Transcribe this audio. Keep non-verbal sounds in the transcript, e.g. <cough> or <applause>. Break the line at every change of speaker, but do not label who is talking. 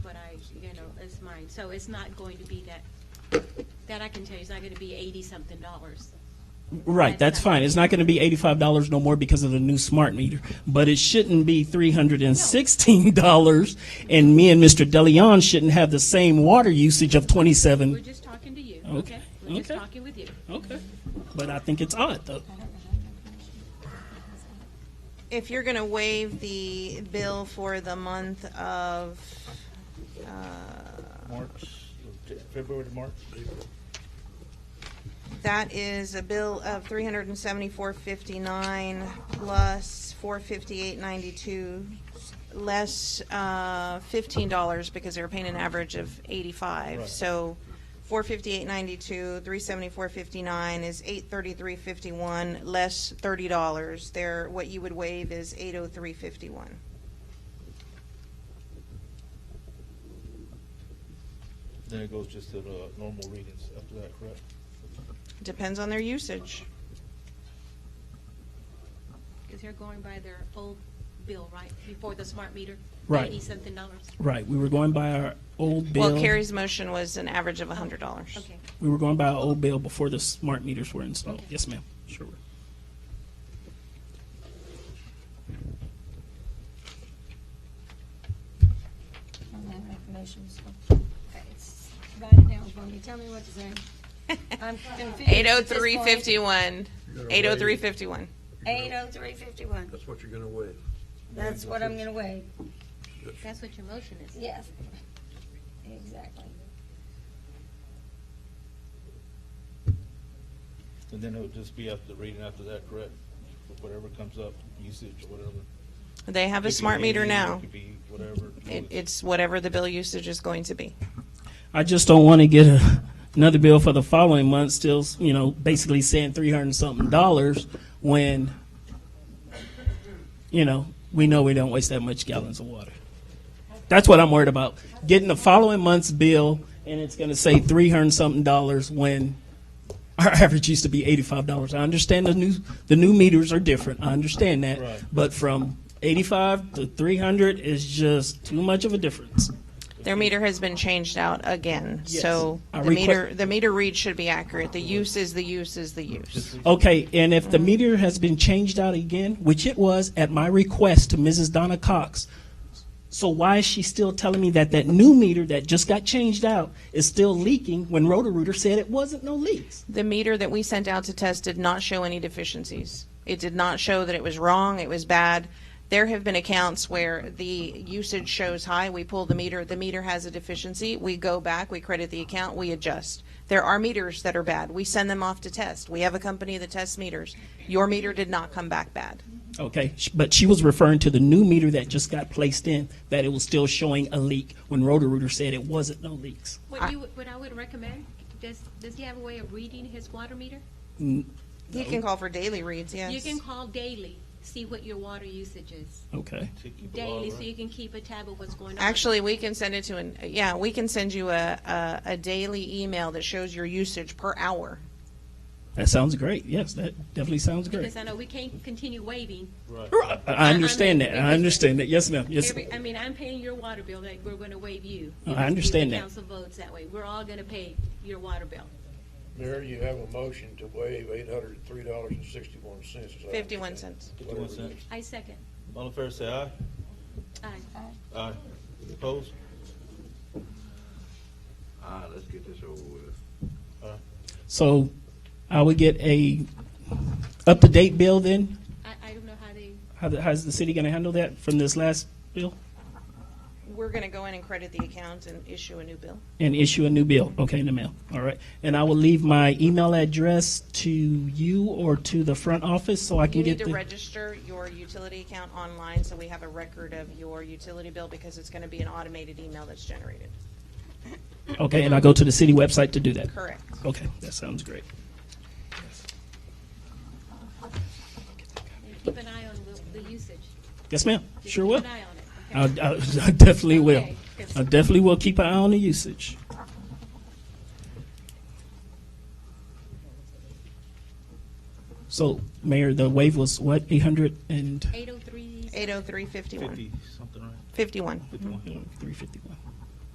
is mine, so it's not going to be that, that I can tell you, it's not gonna be eighty-something dollars.
Right, that's fine. It's not going to be eighty-five dollars no more because of the new smart meter, but it shouldn't be three hundred and sixteen dollars. And me and Mr. DeLeon shouldn't have the same water usage of
We're
twenty-seven.
just talking to you,
Okay,
okay? We're just
okay.
talking with you.
Okay, but I think it's odd though.
If you're going to waive the bill for the month of,
March, February to March.
that is a bill of three hundred and seventy-four fifty-nine plus four fifty-eight ninety-two, less uh, fifteen dollars because they were paying an average of eighty-five.
Right.
So four fifty-eight ninety-two, three seventy-four fifty-nine is eight thirty-three fifty-one, less thirty dollars. There, what you would waive is eight oh three fifty-one.
Then it goes just to the normal readings after that, correct?
Depends on their usage.
Because they're going by their old bill, right, before the smart meter?
Right.
Eighty-something dollars.
Right, we were going by our old bill.
Well, Carrie's motion was an average of hundred dollars.
Okay,
We were going by our old bill before the smart meters were installed.
Okay.
Yes, ma'am. Sure. were.
on that information, so. it's Write it down for me, tell me what to say. I'm confused.
<laughs> Eight oh three fifty-one. Eight oh three fifty-one.
Eight oh three fifty-one,
That's what you're gonna waive.
that's what I'm gonna waive,
that's what your motion is.
yes. Exactly.
And then it'll just be after the reading after that, correct? Whatever comes up, usage or whatever.
They have a
It could
smart
be
meter
any,
now.
It could be whatever.
It, it's whatever the bill usage is going to be.
I just don't want to get a, another bill for the following month, still, you know, basically saying three hundred and something dollars when, you know, we know we don't waste that much gallons of water. That's what I'm worried about. Getting the following month's bill and it's going to say three hundred and something dollars when our <laughs> average used to be eighty-five dollars. I understand the new, the new meters are different. I understand that.
Right.
But from eighty-five to three hundred is just too much of a difference.
Their meter has been changed out again,
Yes.
so
I
the
requ-
meter, the meter read should be accurate. The use is the use is the use.
Okay, and if the meter has been changed out again, which it was at my request to Mrs. Donna Cox, so why is she still telling me that that new meter that just got changed out is still leaking when Roto-Rooter said it wasn't no leaks?
The meter that we sent out to test did not show any deficiencies. It did not show that it was wrong, it was bad. There have been accounts where the usage shows high, we pull the meter, the meter has a deficiency, we go back, we credit the account, we adjust. There are meters that are bad, we send them off to test. We have a company that tests meters. Your meter did not come back bad.
Okay, sh- but she was referring to the new meter that just got placed in, that it was still showing a leak when Roto-Rooter said it wasn't no leaks.
What you, would- what I would recommend, does, does he have a way of reading his water meter?
You can call for daily reads, yes.
You can call daily, see what your water usage is,
Okay,
daily, so you can keep a tab of what's going on.
Actually, we can send it to an, yeah, we can send you a, a, a daily email that shows your usage per hour.
that sounds great. Yes, that definitely sounds great.
Because I know we can't continue waiving
I- I understand that. I understand that. Yes, ma'am. Yes.
Every, I mean, I'm paying your water bill, like, we're gonna waive you.
I understand that.
If the council votes that way, we're all gonna pay your water bill.
Mayor, you have a motion to waive eight hundred and three dollars and sixty-one cents.
Fifty-one cents.
Fifty-one cents.
I second.
All in favor, say aye.
Aye.
Aye. Opposed?
Ah, let's get this over with.
So I would get a up-to-date bill then?
I, I don't know how they,
How the, how's the city going to handle that from this last bill
We're gonna go in and credit the account and issue a new bill.
and issue a new bill? Okay, in the mail. All right. And I will leave my email address to you or to the front office so I can
You need
get
to
the.
register your utility account online, so we have a record of your utility bill, because it's gonna be an automated email that's generated.
Okay, and I go to the city website to do that.
Correct.
Okay, that sounds great.
they keep an eye on the, the usage.
Yes, ma'am.
Just
Sure will.
Keep an eye on it.
I, I,
okay?
I <laughs> definitely will.
Okay.
I definitely will keep an eye on the usage. So, Mayor, the wave was what, 800 and
Eight oh three.
Eight oh three fifty-one.
Fifty, something, right?
Fifty-one.
Fifty-one.
351?